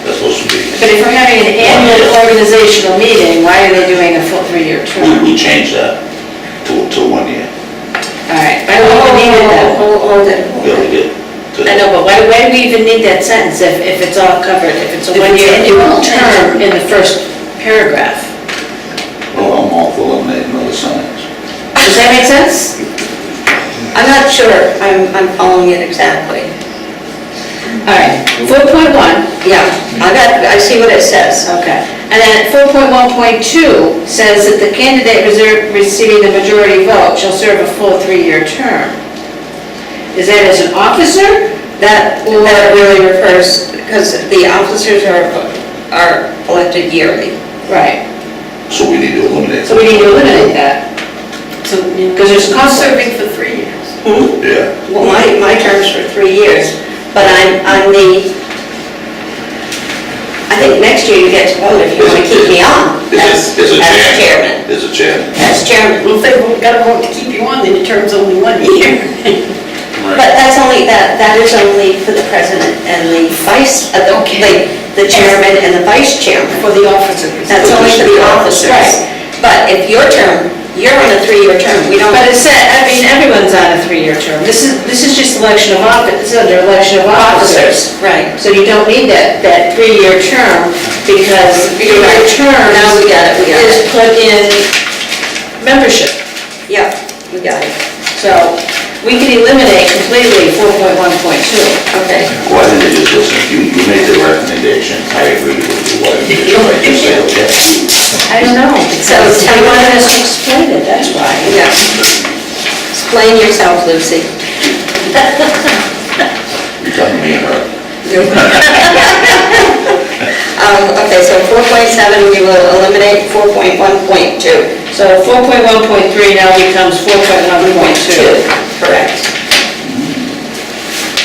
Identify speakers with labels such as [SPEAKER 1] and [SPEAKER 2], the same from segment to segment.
[SPEAKER 1] But if we're having an annual organizational meeting, why are they doing a full three-year term?
[SPEAKER 2] We, we changed that to, to one year,
[SPEAKER 1] All right, why do we even need it then?
[SPEAKER 3] Hold, hold it.
[SPEAKER 2] yeah, we did. To-
[SPEAKER 1] I know, but why, why do we even need that sentence if, if it's all covered, if it's a
[SPEAKER 3] If it's
[SPEAKER 1] one-year annual
[SPEAKER 3] annual.
[SPEAKER 1] term in the first paragraph?
[SPEAKER 2] Well, I'm all for eliminating all the signs.
[SPEAKER 1] Does that make sense?
[SPEAKER 3] I'm not sure I'm, I'm following it exactly.
[SPEAKER 1] All right, four point one,
[SPEAKER 3] Yeah, I got, I see what it says.
[SPEAKER 1] okay. And then four point one point two says that the candidate reserve, receiving the majority vote shall serve a full three-year term. Is that as an officer?
[SPEAKER 3] That, that really refers, because the officers are, are elected yearly.
[SPEAKER 1] Right,
[SPEAKER 2] So we need to eliminate.
[SPEAKER 1] so we need to eliminate that. Because there's cost serving for three years.
[SPEAKER 2] Yeah,
[SPEAKER 3] Well, my, my term's for three years, but I'm, I'm the, I think next year you get to vote if you want to keep me on.
[SPEAKER 2] it's, it's a
[SPEAKER 3] As-
[SPEAKER 2] chairman,
[SPEAKER 3] As chairman.
[SPEAKER 2] it's a chairman.
[SPEAKER 3] As chairman.
[SPEAKER 4] Well, if they won't- gotta vote to keep you on, then your term's only one year.
[SPEAKER 3] But that's only, that, that is only for the president and the vice, uh, the, like, the chairman and the vice chairman.
[SPEAKER 4] For the officers.
[SPEAKER 3] That's only for the officers. But if your term, you're on a three-year term, we don't.
[SPEAKER 1] But it said, I mean, everyone's on a three-year term. This is, this is just election of office, this is under election of officers.
[SPEAKER 3] Right.
[SPEAKER 1] So you don't need that, that three-year term because your term
[SPEAKER 3] Now we got it, we got
[SPEAKER 1] is
[SPEAKER 3] it.
[SPEAKER 1] put in membership.
[SPEAKER 3] Yeah, we got it.
[SPEAKER 1] So we can eliminate completely 4.1.2.
[SPEAKER 3] Okay.
[SPEAKER 2] Why didn't they just listen, you, you made the recommendation, I agree with you, why didn't you just like, just say, okay?
[SPEAKER 1] I don't know. So
[SPEAKER 3] tell
[SPEAKER 1] they
[SPEAKER 3] me-
[SPEAKER 1] wanted us to explain it, that's why.
[SPEAKER 3] Yeah. Explain yourself, Lucy.
[SPEAKER 2] You're telling me, her.
[SPEAKER 3] Um, okay, so four point seven, we will eliminate four point one point two.
[SPEAKER 1] So 4.1.3 now becomes 4.1.2.
[SPEAKER 3] Correct.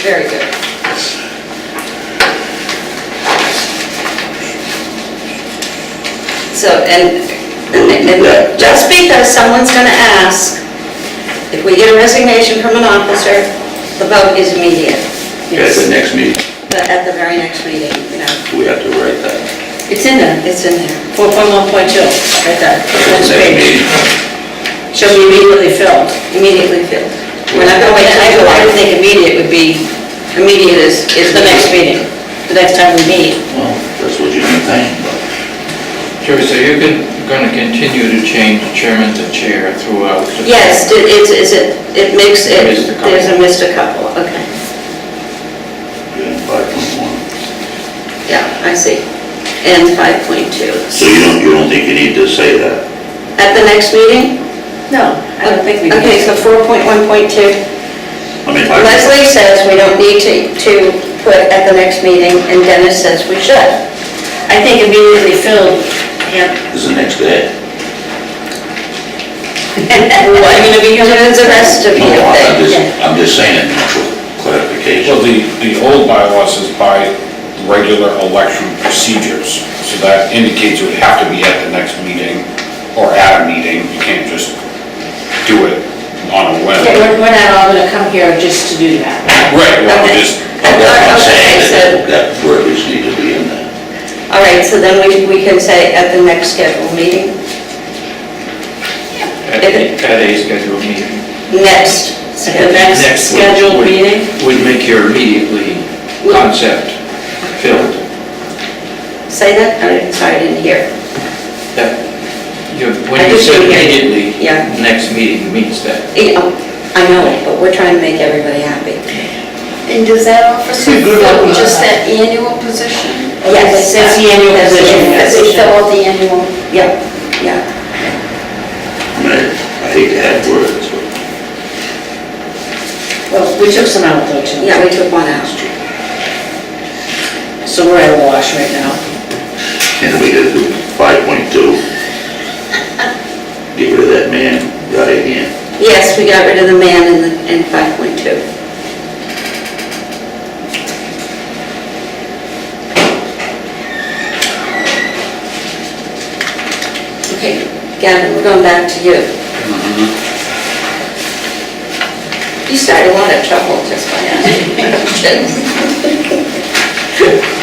[SPEAKER 3] Very good. So, and, and- and just because someone's gonna ask, if we get a resignation from an officer, the vote is immediate,
[SPEAKER 2] at the next meeting,
[SPEAKER 3] but at the very next meeting, you know,
[SPEAKER 2] we have to write that.
[SPEAKER 1] It's in there.
[SPEAKER 3] it's in there.
[SPEAKER 1] 4.1.2, right there, next
[SPEAKER 2] Next
[SPEAKER 1] page,
[SPEAKER 2] meeting,
[SPEAKER 1] shall be immediately filled.
[SPEAKER 3] Immediately filled. We're not gonna wait, I
[SPEAKER 1] I
[SPEAKER 3] go,
[SPEAKER 1] would- I
[SPEAKER 3] I
[SPEAKER 1] would
[SPEAKER 3] think
[SPEAKER 1] think immediate would be,
[SPEAKER 3] immediate is, is
[SPEAKER 1] is the next meeting, the next time we meet.
[SPEAKER 2] well, that's what you're thinking, but.
[SPEAKER 5] Sure, so you're gon- gonna continue to change chairman to chair throughout? the-
[SPEAKER 3] Yes, it- it's, it's, it it makes,
[SPEAKER 5] Missed a
[SPEAKER 3] it,
[SPEAKER 5] couple.
[SPEAKER 3] there's a missed a couple, okay.
[SPEAKER 2] Yeah, five point one.
[SPEAKER 3] Yeah, I see. And 5.2.
[SPEAKER 2] So you don't, you don't think you need to say that?
[SPEAKER 3] At the next meeting?
[SPEAKER 1] No, I don't think we need
[SPEAKER 3] Okay, so
[SPEAKER 1] to.
[SPEAKER 3] 4.1.2.
[SPEAKER 2] I mean, I-
[SPEAKER 3] Leslie says we don't need to, to put at the next meeting, and Dennis says we should.
[SPEAKER 1] I think immediately filled, yeah.
[SPEAKER 2] is the next day.
[SPEAKER 3] What, you gonna be using it as the rest of
[SPEAKER 2] No,
[SPEAKER 3] you?
[SPEAKER 2] Oh, I'm
[SPEAKER 3] think?
[SPEAKER 2] just, I'm just saying, for clarification.
[SPEAKER 6] Well, the, the old bylaws is by regular election procedures, so that indicates it would have to be at the next meeting or at a meeting, you can't just do it on a whim.
[SPEAKER 1] Okay, We're, we're not all gonna come here just to do that.
[SPEAKER 6] Right, well, we just,
[SPEAKER 2] But what I'm saying,
[SPEAKER 3] Okay, so-
[SPEAKER 2] that, that verbiage need to be in there.
[SPEAKER 3] All right, so then we, we can say at the next scheduled meeting,
[SPEAKER 5] At a at a scheduled meeting?
[SPEAKER 3] next
[SPEAKER 1] At the
[SPEAKER 3] scheduled.
[SPEAKER 1] next
[SPEAKER 5] would-
[SPEAKER 1] scheduled
[SPEAKER 5] would-
[SPEAKER 1] meeting,
[SPEAKER 5] Would make your immediately concept filled,
[SPEAKER 3] Say that, I'm sorry, I didn't hear.
[SPEAKER 5] that, you-
[SPEAKER 3] I
[SPEAKER 5] when you
[SPEAKER 3] just
[SPEAKER 5] said
[SPEAKER 3] didn't hear you.
[SPEAKER 5] immediately,
[SPEAKER 3] Yeah.
[SPEAKER 5] next meeting means that.
[SPEAKER 3] You know, um, I know it, but we're trying to make everybody happy.
[SPEAKER 4] And does that officer fill just that annual position?
[SPEAKER 3] Yes,
[SPEAKER 1] That's the annual
[SPEAKER 3] that's
[SPEAKER 1] position.
[SPEAKER 3] That's the
[SPEAKER 4] out the annual.
[SPEAKER 3] Yep, yeah.
[SPEAKER 2] I mean, I hate to add words, but
[SPEAKER 1] well, we took some out though too.
[SPEAKER 3] Yeah, we took one out.
[SPEAKER 1] So we're at a wash right now.
[SPEAKER 2] can we get to five point two? Get rid of that man, guy again.
[SPEAKER 3] Yes, we got rid of the man in, the- in 5.2. Okay, Gavin, we're going back to you. You started a lot of trouble just by asking questions.